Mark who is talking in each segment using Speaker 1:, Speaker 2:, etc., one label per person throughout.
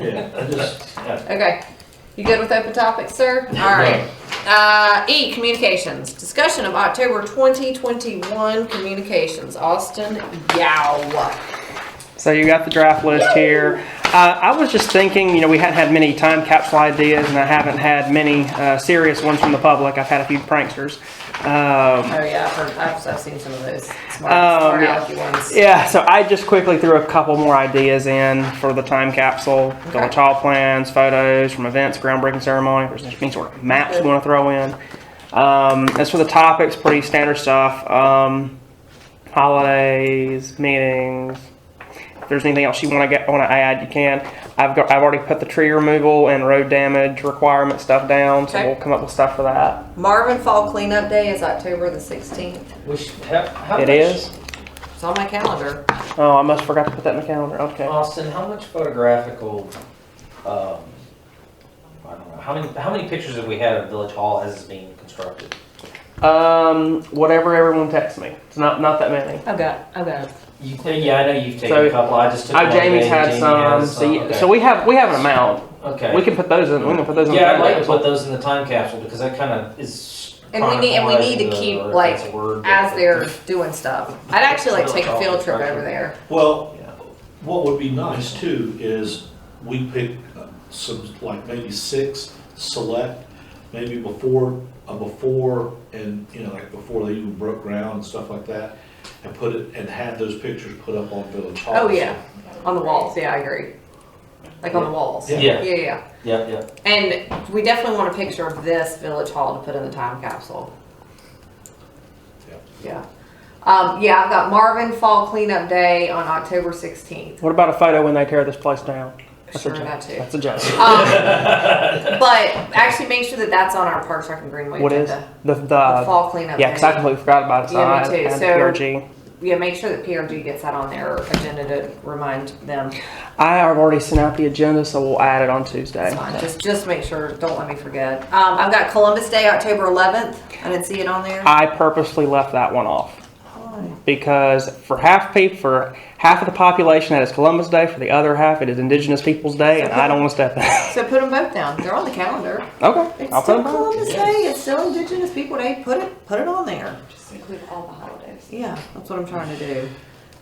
Speaker 1: Yeah, I just, yeah.
Speaker 2: Okay. You good with open topics, sir? All right. Uh, E, communications. Discussion of October 2021 communications. Austin Yao.
Speaker 3: So you got the draft list here. Uh, I was just thinking, you know, we hadn't had many time capsule ideas, and I haven't had many uh, serious ones from the public. I've had a few pranksters. Um,
Speaker 2: Oh, yeah, I've, heard, I've, I've seen some of those smart,
Speaker 3: Um,
Speaker 2: smart
Speaker 3: yeah.
Speaker 2: alecky ones.
Speaker 3: yeah, so I just quickly threw a couple more ideas in for the time capsule.
Speaker 2: Okay.
Speaker 3: The tall plans, photos from events, groundbreaking ceremony, if there's any sort of maps you want to throw in. Um, as for the topics, pretty standard stuff. Um, holidays, meetings. If there's anything else you want to get want to add, you can. I've got I've already put the tree removal and road damage requirement stuff down, so
Speaker 2: Okay.
Speaker 3: we'll come up with stuff for that.
Speaker 2: Marvin Fall Cleanup Day is October the 16th.
Speaker 1: We should, how, how
Speaker 3: It
Speaker 1: much?
Speaker 3: is.
Speaker 2: It's on my calendar.
Speaker 3: Oh, I must forgot to put that in the calendar. Okay.
Speaker 1: Austin, how much photographical, um, I don't know, how many, how many pictures have we had of Village Hall as it's being constructed?
Speaker 3: Um, whatever everyone texts me. It's not not that many.
Speaker 2: I've got, I've got.
Speaker 1: You, yeah, I know you've taken
Speaker 3: So-
Speaker 1: a couple, I just took.
Speaker 3: Oh,
Speaker 1: one
Speaker 3: Jamie's
Speaker 1: today,
Speaker 3: had
Speaker 1: Jamie
Speaker 3: some.
Speaker 1: has
Speaker 3: So, y
Speaker 1: okay.
Speaker 3: so we have we have an amount.
Speaker 1: Okay.
Speaker 3: We can put those in. We can put those in. the
Speaker 1: Yeah, I'd
Speaker 3: calendar.
Speaker 1: like to put those in the time capsule because that kind of is.
Speaker 2: And we need- and we need to
Speaker 1: chronicling
Speaker 2: keep,
Speaker 1: or if
Speaker 2: like,
Speaker 1: that's a word, but-
Speaker 2: As they're doing stuff. I'd actually like to take a field trip over there.
Speaker 4: Well,
Speaker 1: Yeah.
Speaker 4: what would be nice too is we pick uh, some, like maybe six select, maybe before, uh, before and, you know, like before they even broke ground and stuff like that. And put it, and have those pictures put up on Village Hall.
Speaker 2: Oh, yeah. On the walls, yeah, I agree. Like on the walls.
Speaker 4: Yeah.
Speaker 2: Yeah,
Speaker 1: Yeah,
Speaker 2: yeah.
Speaker 1: yeah, yeah.
Speaker 2: And we definitely want a picture of this village hall to put in the time capsule.
Speaker 4: Yep.
Speaker 2: Yeah. Um, yeah, I've got Marvin Fall Cleanup Day on October sixteenth.
Speaker 3: What about a photo when they tear this place down? That's
Speaker 2: Sure,
Speaker 3: a joke.
Speaker 2: that too.
Speaker 3: That's a joke.
Speaker 2: Um, but actually make sure that that's on our Parks Rec and Greenway
Speaker 3: What is
Speaker 2: agenda.
Speaker 3: the the,
Speaker 2: The fall cleanup.
Speaker 3: yeah? Because I
Speaker 2: day.
Speaker 3: completely forgot about it. So
Speaker 2: Yeah, me
Speaker 3: I had-
Speaker 2: too.
Speaker 3: I had
Speaker 2: So-
Speaker 3: the PRG.
Speaker 2: Yeah, make sure that PRG gets that on their agenda to remind them.
Speaker 3: I have already sent out the agenda, so we'll add it on Tuesday.
Speaker 2: It's fine. Just, just make sure, don't let me forget. Um, I've got Columbus Day, October eleventh. I didn't see it on there.
Speaker 3: I purposely left that one off.
Speaker 2: Oh,
Speaker 3: because for half people, for half of the population, that is Columbus Day. For the other half, it is Indigenous Peoples Day, and I don't want to step in.
Speaker 2: So put them both down. They're on the calendar.
Speaker 3: okay,
Speaker 2: It's
Speaker 3: I'll put
Speaker 2: still
Speaker 3: it on.
Speaker 2: Columbus Day. It's still Indigenous People Day. Put it, put it on there.
Speaker 5: Just include all the holidays.
Speaker 2: Yeah, that's what I'm trying to do.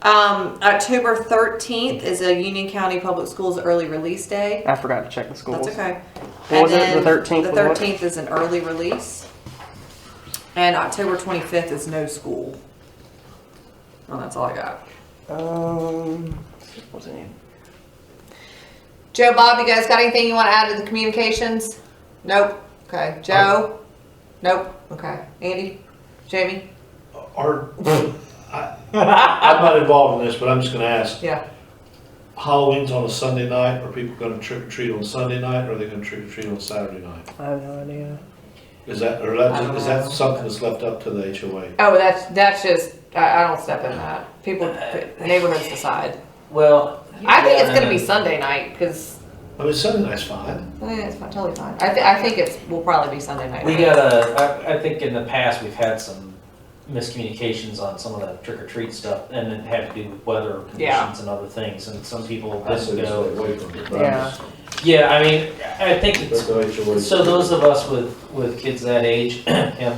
Speaker 2: Um, October 13th is a Union County Public Schools early release day.
Speaker 3: I forgot to check the schools.
Speaker 2: That's okay.
Speaker 3: What was it? The
Speaker 2: And then
Speaker 3: 13th
Speaker 2: The
Speaker 3: was what?
Speaker 2: 13th is an early release. And October 25th is no school. Well, that's all I got.
Speaker 3: Um, what's it?
Speaker 2: Joe, Bob, you guys got anything you want to add to the communications? Nope. Okay. Joe? Nope. Okay. Andy? Jamie?
Speaker 4: Are, Uh, I, I'm not involved in this, but I'm just gonna ask,
Speaker 2: Yeah.
Speaker 4: Halloween's on a Sunday night, are people gonna trick or treat on Sunday night, or are they gonna trick or treat on Saturday night?
Speaker 3: I have no idea.
Speaker 4: Is that, or
Speaker 2: I don't
Speaker 4: that, is
Speaker 2: know.
Speaker 4: that something that's left up to the HOA?
Speaker 2: Oh, that's that's just I, I don't step in that. People neighborhoods decide.
Speaker 1: Well.
Speaker 2: I think it's
Speaker 1: yeah,
Speaker 2: gonna be
Speaker 1: and-
Speaker 2: Sunday night because
Speaker 4: I mean, Sunday night's fine.
Speaker 2: Oh, it's fine, totally fine. I, th- I think it's will probably be Sunday night.
Speaker 1: We gotta, I, I think in the past, we've had some miscommunications on some of the trick or treat stuff and it had to do with weather
Speaker 2: Yeah.
Speaker 1: conditions and other things and some people
Speaker 4: I
Speaker 1: didn't
Speaker 4: said it's
Speaker 1: go.
Speaker 4: away from it, but I'm
Speaker 3: Yeah.
Speaker 4: just-
Speaker 1: Yeah, I mean, I think it's
Speaker 4: but the HOA
Speaker 1: So those of us with, with kids that age, and,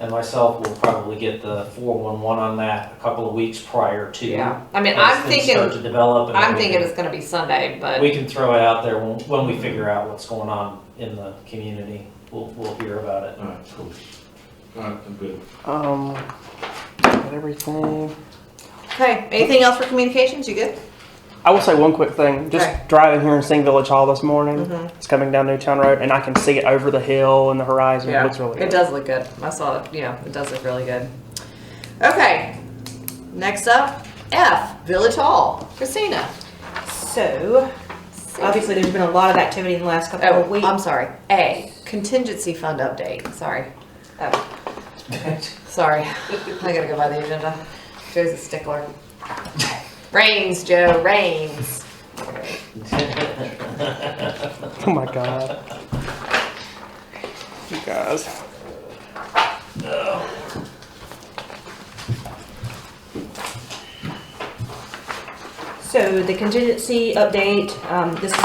Speaker 1: and myself will probably get the four one one on that a couple of weeks prior to.
Speaker 2: Yeah. I mean,
Speaker 1: as
Speaker 2: I'm
Speaker 1: things Start
Speaker 2: thinking
Speaker 1: to develop. and
Speaker 2: I'm
Speaker 1: we
Speaker 2: thinking
Speaker 1: can-
Speaker 2: it's gonna be Sunday, but
Speaker 1: We can throw it out there when, when we figure out what's going on in the community. We'll, we'll hear about it.
Speaker 4: All right, cool. All right, I'm good.
Speaker 3: Um, got everything.
Speaker 2: okay. Anything else for communications? You good?
Speaker 3: I will say one quick thing. Just
Speaker 2: Okay.
Speaker 3: driving here in Sing Village Hall this morning.
Speaker 2: Mhm.
Speaker 3: It's coming down Newtown Road, and I can see it over the hill and the horizon. It looks really
Speaker 2: It
Speaker 3: good.
Speaker 2: does look good. I saw it. Yeah, it does look really good. Okay. Next up, F Village Hall. Christina.
Speaker 5: So, obviously, there's been a lot of activity in the last couple of
Speaker 2: Oh,
Speaker 5: weeks.
Speaker 2: I'm sorry. A, contingency fund update. Sorry. Oh, sorry. I gotta go by the agenda. Joe's a stickler. Rains, Joe, rains.
Speaker 3: Oh my god. You guys.
Speaker 5: So, the contingency update, um, this is